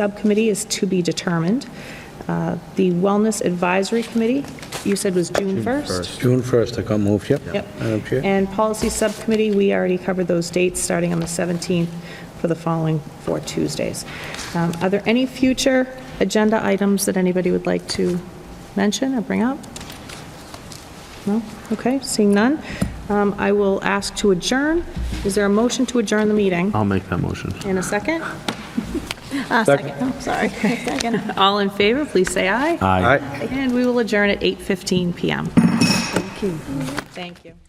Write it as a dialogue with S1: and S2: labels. S1: subcommittee is to be determined. Uh, The Wellness Advisory Committee, you said was June 1st?
S2: June 1st, I got moved, yep.
S1: Yep.
S2: Madam Chair.
S1: And Policy Subcommittee, we already covered those dates, starting on the 17th for the following four Tuesdays. Um, Are there any future agenda items that anybody would like to mention or bring up? No? Okay, seeing none. Um, I will ask to adjourn. Is there a motion to adjourn the meeting?
S3: I'll make that motion.
S1: In a second?
S2: Second.
S1: I'm sorry. All in favor, please say aye.
S3: Aye.
S2: All right.
S1: And we will adjourn at 8:15 PM. Thank you. Thank you.